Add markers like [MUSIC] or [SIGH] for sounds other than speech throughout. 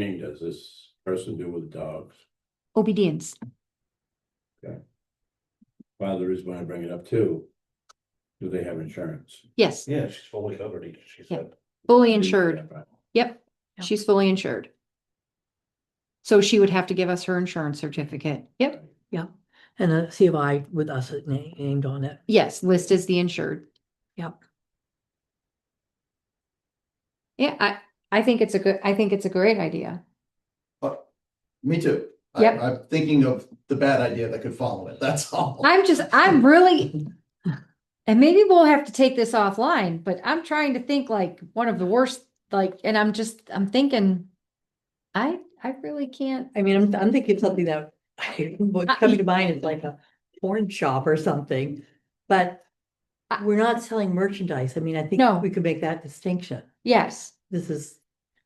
thing does this person do with dogs? obedience. Father is gonna bring it up too. Do they have insurance? Yes, Yeah, she's fully covered, she Yeah. said. fully insured. Yeah, right. Yep, Yeah. she's fully insured. So she would have to give us her insurance certificate. Yep, Yeah, and a COI with us na- named on it. yes, list as the insured. Yep. Yeah, I, I think it's a good, I think it's a great idea. Me too. I- Yep. I'm thinking of the bad idea that could follow it, that's all. I'm just, I'm really, and maybe we'll have to take this offline, but I'm trying to think like one of the worst, like, and I'm just, I'm thinking, I, I really can't. I mean, I'm, I'm thinking something that, [LAUGHS] what's Uh, coming to mind is like a porn shop or something. But Uh, we're not selling merchandise. I mean, I No. think we could make that distinction. Yes. This is,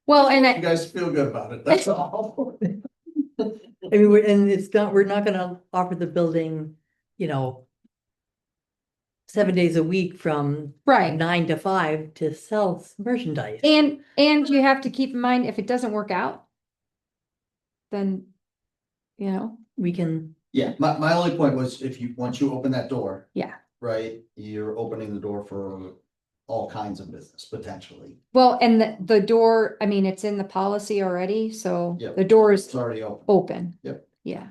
Well, and I, [LAUGHS] You guys feel good about it, that's [LAUGHS] all. I mean, we're, and it's not, we're not gonna offer the building, you know, seven days a week from right. nine to five to sell s- merchandise. And, and you have to keep in mind, if it doesn't work out, then, you know, We can, Yeah, my, my only point was if you, once you open that door. Yeah. Right, you're opening the door for all kinds of business potentially, well, and the, the door, I mean, it's in the policy already, so Yep. the door it's is already open. open. Yep. Yeah.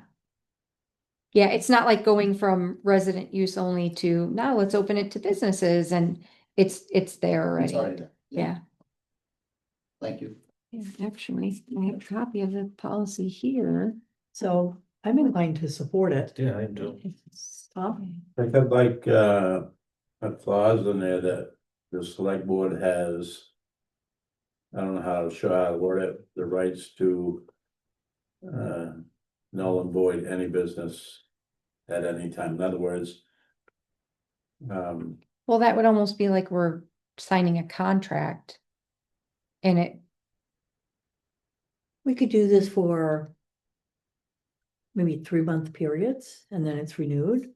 Yeah, it's not like going from resident use only to now let's open it to businesses and it's, it's there It's already already. there. Yeah. Thank you. Yeah, Actually, I have a copy of the policy here. so I'm inclined to support it. Yeah, I do. Stop. I have like, uh, a clause in there that the select board has. I don't know how to show how to word it, the rights to. Uh, null and void any business at any time, in other words. Um, Well, that would almost be like we're signing a contract. And it, We could do this for maybe three month periods and then it's renewed,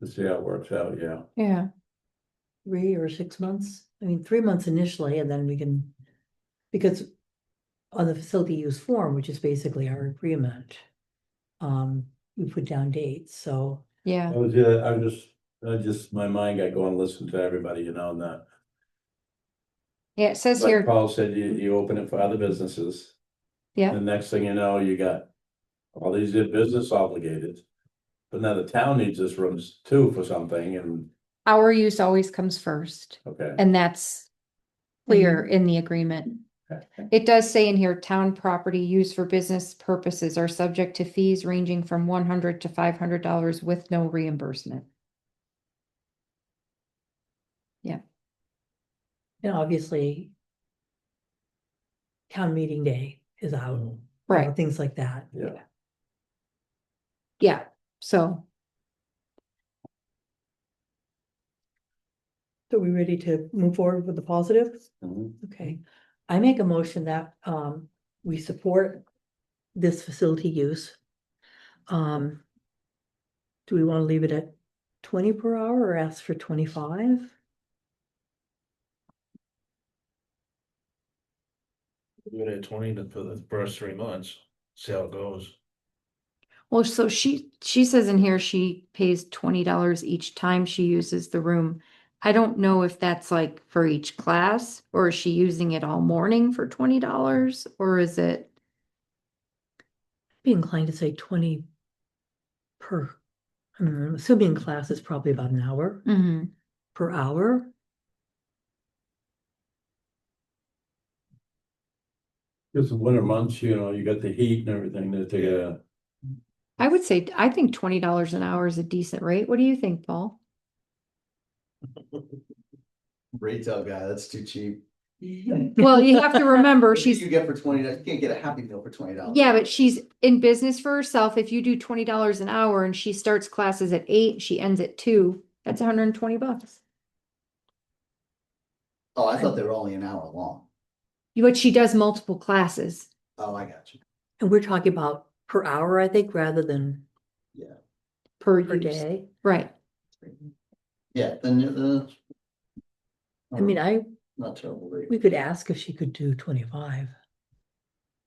let's see how it works out, yeah. yeah, three or six months. I mean, three months initially, and then we can, because on the facility use form, which is basically our agreement, um, we put down dates, so yeah. I was, yeah, I was just, I just, my mind got going, listen to everybody, you know, and that. Yeah, it says Like here, Paul said, you, you open it for other businesses. yeah, The next thing you know, you got all these business obligated. But now the town needs this room too for something and, our use always comes first, okay. and that's clear in the agreement. It does say in here, town property used for business purposes are subject to fees ranging from one hundred to five hundred dollars with no reimbursement. And obviously, town meeting day is out, you know, Right, Things like that. Yeah. yeah, so, So we ready to move forward with the positives? Mhm. Okay, I make a motion that, um, we support this facility use. Um, do we want to leave it at twenty per hour or ask for twenty-five? Do it at twenty to- for the first three months, see how it goes. well, so she, she says in here she pays twenty dollars each time she uses the room. I don't know if that's like for each class, or is she using it all morning for twenty dollars, or is it? Be inclined to say twenty per, I mean, I'm assuming class is probably about an hour Mhm. per hour. It's the winter months, you know, you got the heat and everything that they, uh, I would say, I think twenty dollars an hour is a decent rate. What do you think, Paul? Retail guy, that's too cheap. Well, you have to [LAUGHS] remember, What do she's You get for twenty, dollars? you can't get a happy meal for twenty dollars. Yeah, but she's in business for herself. If you do twenty dollars an hour and she starts classes at eight, she ends at two, that's hundred and twenty bucks. Oh, I thought they were only an hour long. But she does multiple classes. Oh, I got you. And we're talking about per hour, I think, rather than Per per use, day. right? Yeah, then, uh. I mean, I, Uh-huh. Not terrible. rate. we could ask if she could do twenty-five.